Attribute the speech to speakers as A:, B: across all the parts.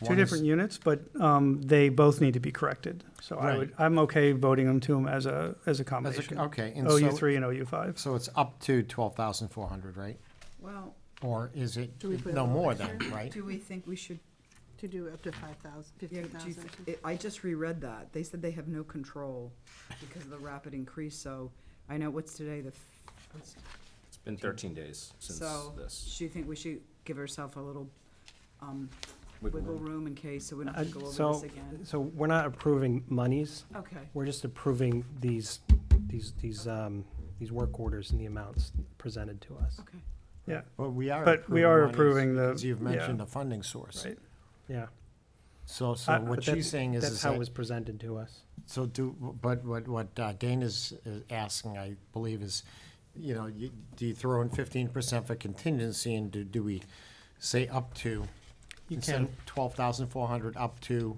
A: Two
B: One is-
A: different units, but um, they both need to be corrected. So I
B: Right.
A: would, I'm okay voting them to them as a, as a
B: as a-
A: combination.
B: Okay, and
A: OU
B: so,
A: three and OU five.
B: so it's up to twelve thousand four hundred, right?
C: Well,
B: Or is it
D: Do we put a
B: no
D: little
B: more
D: bit
B: than, right?
C: do we think we should,
D: to do up to five thousand,
C: yeah,
D: fifteen
C: do you
D: thousand.
C: th- I I just reread that. They said they have no control because of the rapid increase, so I know what's today, the, f- what's-
E: It's been thirteen days since
C: so,
E: this.
C: do you think we should give ourselves a little um,
E: Wiggle
C: wiggle
E: room.
C: room in case, so we don't have to go
F: Uh,
C: over
F: so-
C: this again?
F: So we're not approving monies,
C: Okay,
F: we're just approving these, these, these, um, these work orders and the amounts presented to us.
C: okay.
B: But we are.
A: But we are
B: monies,
A: approving the-
B: because You've
A: yeah.
B: mentioned the funding source.
A: Right.
F: Yeah.
B: So, so
F: Uh,
B: what
F: but that-
B: she's saying is,
F: That's
B: is
F: how it was
B: that,
F: presented to us.
B: so do, but what, what uh, Dana's uh, asking, I believe, is, you know, you, do you throw in fifteen percent for contingency and do, do we say up to?
F: You
B: Instead
F: can,
B: of twelve thousand four hundred, up to,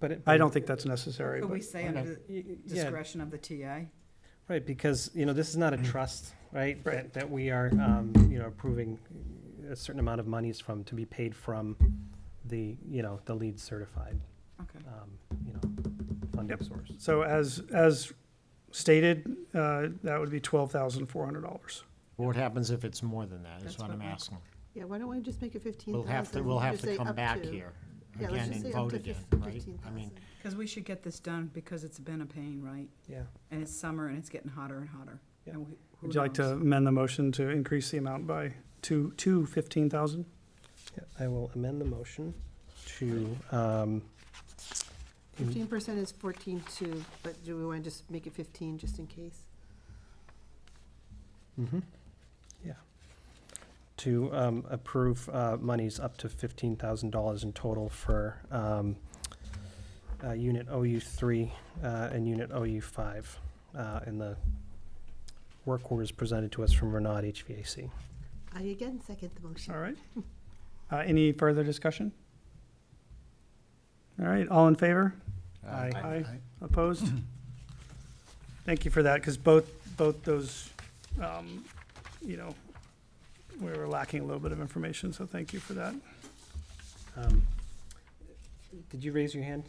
F: but it.
A: I don't think that's necessary,
C: Could we
A: but
C: say under the
F: Y- y- Yeah,
C: discretion of the TA?
F: right, because, you know, this is not a trust, right?
A: Right.
F: That, that we are, um, you know, approving a certain amount of monies from, to be paid from the, you know, the lead certified,
C: Okay.
F: um, you know, funding
A: Yep.
F: source.
A: so as, as stated, uh, that would be twelve thousand four hundred dollars.
B: what happens if it's more than that,
C: That's
B: is what
C: what
B: I'm
C: we-
B: asking.
D: Yeah, why don't we just make it fifteen
B: We'll
D: thousand?
B: have to, we'll have to come back here
D: Yeah, let's
B: again
D: just
B: and
D: say up
B: vote
D: to
B: again, right?
D: fifteen
B: I mean,
D: thousand.
C: Because we should get this done because it's been a pain, right?
F: Yeah.
C: And it's summer and it's getting hotter and hotter.
F: Yeah.
C: And we- who
A: Would you like to
C: knows?
A: amend the motion to increase the amount by two, two fifteen thousand?
F: Yeah, I will amend the motion to, um, in-
D: Fifteen percent is fourteen two, but do we want to just make it fifteen, just in case?
F: mhm, yeah, to um, approve uh, monies up to fifteen thousand dollars in total for um, uh, Unit OU three uh, and Unit OU five uh, in the work orders presented to us from Renaud HVAC.
D: I again second the motion.
A: All right. Uh, any further discussion? All right, all in favor?
F: Aye.
A: Aye. Opposed? Thank you for that, because both, both those, um, you know, we were lacking a little bit of information, so thank you for that.
F: Um, Did you raise your hand?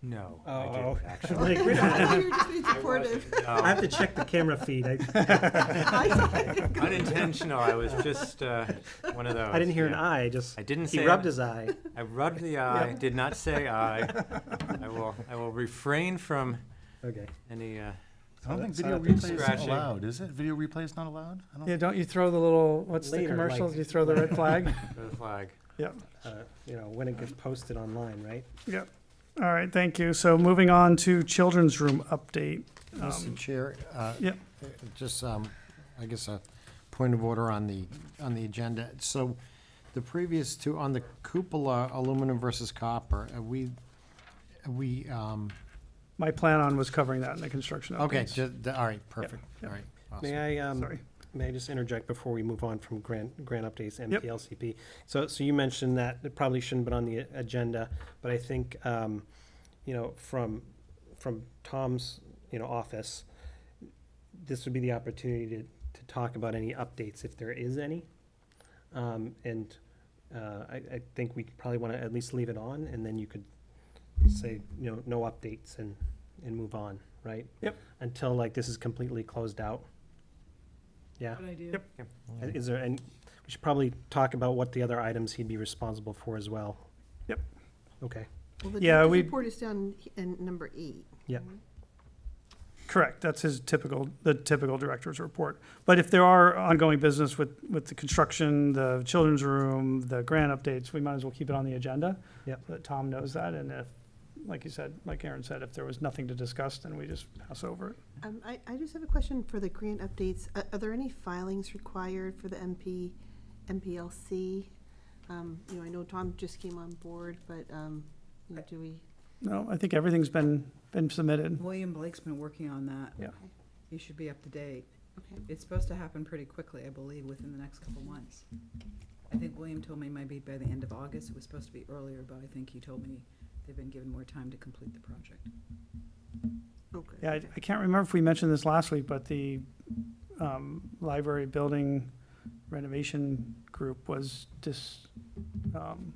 G: No,
F: Oh,
G: I
F: oh.
G: didn't actually.
F: Like, wait a minute,
D: I thought you were just being supportive.
F: I
G: No,
F: have to check the camera feed. I
G: unintentional. I was just uh, one of those.
F: I didn't hear an
G: yeah.
F: eye, I just,
G: I didn't say.
F: he rubbed his eye.
G: I rubbed the eye. Did not say I. I will. I will refrain from
F: Okay.
G: any. Uh,
H: I don't think
F: So that-
H: video
F: so that
H: replay is
G: scratching.
H: allowed, is it? Video replay is not allowed? I don't,
A: Yeah, don't you throw the little, what's the
F: Later,
A: commercials,
F: like-
A: you throw the red flag?
G: red flag.
F: uh, you know, when it gets posted online, right?
A: Yep. All right, thank you. So moving on to children's room update.
B: Mr.
A: Um,
B: Chair, uh,
A: Yep.
B: just, um, I guess a point of order on the, on the agenda. So the previous two, on the cupola aluminum versus copper, are we, are we, um,
A: My plan on was covering that in the construction
B: okay,
A: updates.
B: ju- all right, perfect, all right. awesome.
F: May I, um,
A: Sorry.
F: may I just interject before we move on from grant, grant updates and
A: Yep.
F: PLCP? So, so you mentioned that it probably shouldn't have been on the agenda, but I think, um, you know, from, from Tom's, you know, office, this would be the opportunity to, to talk about any updates, if there is any. Um, and, uh, I, I think we probably wanna at least leave it on, and then you could say, you know, no updates and, and move on, right?
A: Yep.
F: Until like this is completely closed out. Yeah?
C: Good idea.
A: Yep.
F: Uh, Is there, and we should probably talk about what the other items he'd be responsible for as well.
A: Yep.
F: Okay,
D: Well, the
A: Yeah,
D: director's
A: we-
D: report is down he- in number eight.
F: Yeah.
A: Correct, that's his typical, the typical director's report. But if there are ongoing business with, with the construction, the children's room, the grant updates, we might as well keep it on the agenda.
F: Yep.
A: But Tom knows that, and if, like you said, like Aaron said, if there was nothing to discuss, then we just pass over it.
D: Um, I, I just have a question for the grant updates. Are, are there any filings required for the MP, MPLC? Um, you know, I know Tom just came on board, but, um, you know, do we?
A: No, I think everything's been, been submitted.
C: William Blake's been working on that.
A: Yeah.
D: Okay.
C: He should be up to date.
D: Okay.
C: It's supposed to happen pretty quickly, I believe, within the next couple months. I think William told me maybe by the end of August. It was supposed to be earlier, but I think he told me they've been given more time to complete the project.
D: Okay.
A: Yeah, I, I can't remember if we mentioned this last week, but the, um, library building renovation group was dis, um,